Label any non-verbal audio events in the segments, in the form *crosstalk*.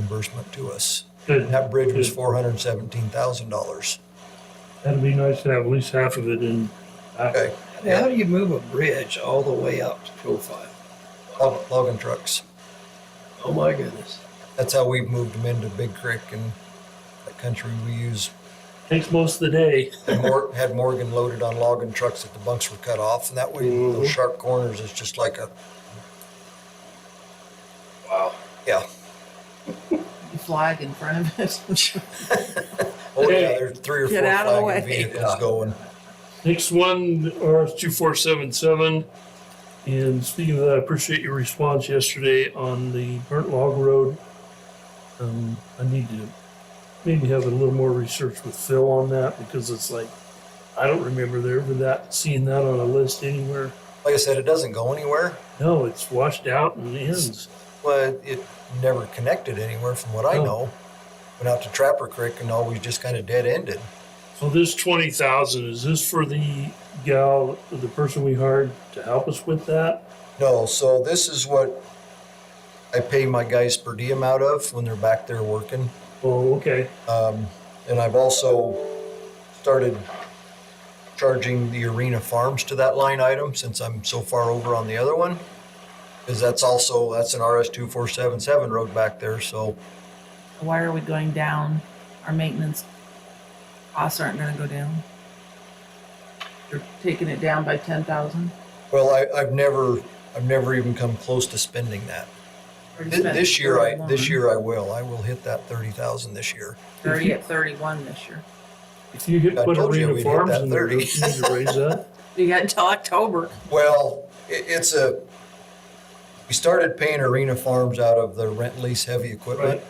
reimbursement to us. And Good. that bridge was four hundred and seventeen thousand dollars. That'd be nice to have at least half of it in. Uh, back. Okay. Now, How do you move a bridge all the way up to profile? Log- Logging trucks. Oh my goodness. That's how we've moved them into Big Creek and that country we use. Takes most of the day. Had Mor- Had Morgan loaded on logging trucks that the bunks were cut off and that way those Mhm. sharp corners is just like a, Wow. yeah. flag in front of it. Oh yeah, Hey. there's three or four Get out of the flagging way. vehicles going. Next one, RS two four seven seven. And speaking of that, I appreciate your response yesterday on the burnt log road. Um, I need to maybe have a little more research with Phil on that because it's like, I don't remember there ever that, seeing that on a list anywhere. Like I said, it doesn't go anywhere. No, it's washed out and ends. Well, it never connected anywhere from what I Oh. know. Went out to Trapper Creek and always just kind of dead ended. So this twenty thousand, is this for the gal, the person we hired to help us with that? No, so this is what I pay my guys per diem out of when they're back there working. Oh, okay. Um, and I've also started charging the arena farms to that line item since I'm so far over on the other one. Cause that's also, that's an RS two four seven seven road back there, so Why are we going down? Our maintenance costs aren't gonna go down. You're taking it down by ten thousand? well, I, I've never, I've never even come close to spending that. Thi- This year, I, this year I will, I will hit that thirty thousand this year. Thirty at thirty-one this year. If you get I put told you Arena we'd hit Farms that in there, 30. don't you need to *laughs* raise that? You got until October. Well, it, it's a, we started paying Arena Farms out of the rent lease heavy equipment. Right.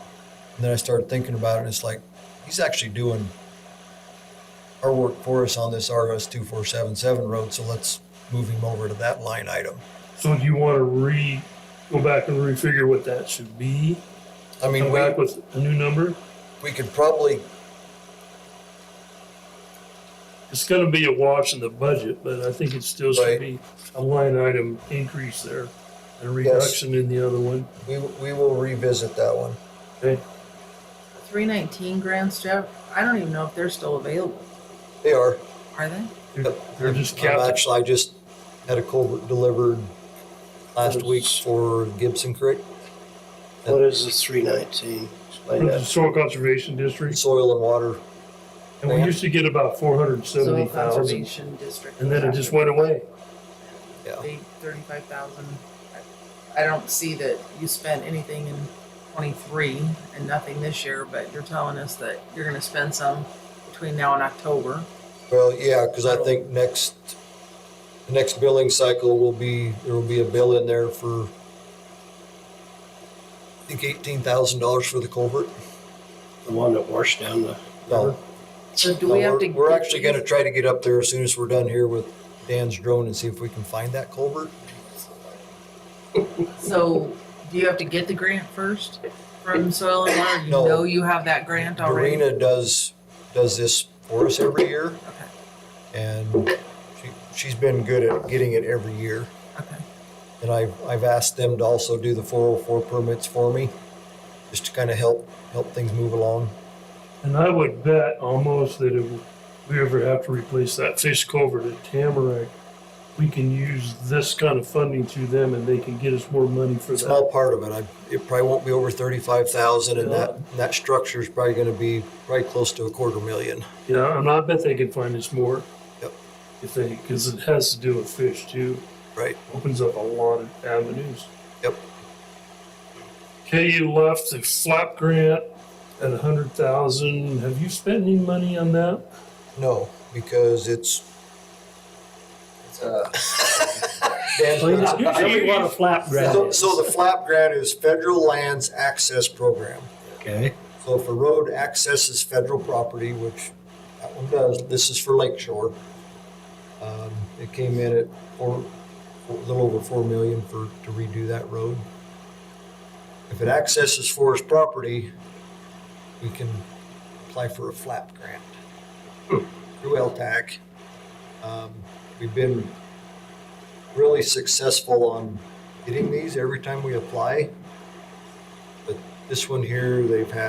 And then I started thinking about it and it's like, he's actually doing our work for us on this RS two four seven seven road, so let's move him over to that line item. So do you want to re, go back and refigure what that should be? I mean, Come we, back with a new number? we could probably, It's gonna be a wash in the budget, but I think it still Right. should be a line item increase there. And a reduction in the other one. we, we will revisit that one. Okay, Three nineteen grants, Jeff, I don't even know if they're still available, They are. are they? They're- they're just I'm capped. Actually, I just had a culvert delivered last week for Gibson Creek. What is the 319? For Explain the that. Soil Conservation District, Soil and water, and we used to get about four hundred and seventy Soil thousand, Conservation District. and then it just went away. yeah. Thirty-five thousand. I don't see that you spent anything in twenty-three and nothing this year, but you're telling us that you're gonna spend some between now and October. Well, yeah, because I think next, the next billing cycle will be, there will be a bill in there for, I think eighteen thousand dollars for the culvert. The one that washed down the. No, So do no, we have we're, to? we're actually gonna try to get up there as soon as we're done here with Dan's drone and see if we can find that culvert. So do you have to get the grant first from Soil and Water? You No. know you have that grant already? Dorena does, does this for us every year Okay, and she, she's been good at getting it every year. okay. And I've, I've asked them to also do the four oh four permits for me, just to kind of help, help things move along. And I would bet almost that if we ever have to replace that fish culvert at Tamarack, we can use this kind of funding through them and they can get us more money for a small that. part of it. I, it probably won't be over thirty-five thousand, and that and that structure is probably going to be right close to a quarter million. Yeah, and I bet they can find us more. Yep. If they, because it has to do with fish too. Right. Opens up a lot of avenues. Yep. KU left the flap grant at a hundred thousand. Have you spent any money on that? No, because it's Please. Dan's- Usually what a flap so, so the flap grant is federal lands access program. Okay. So if a road accesses federal property, which that one does, this is for Lakeshore. Um, it came in at four, a little over four million for, to redo that road. If it accesses forest property, we can apply for a flap grant through LTAC. Um, we've been really successful on getting these every time we apply. But This one here, they've had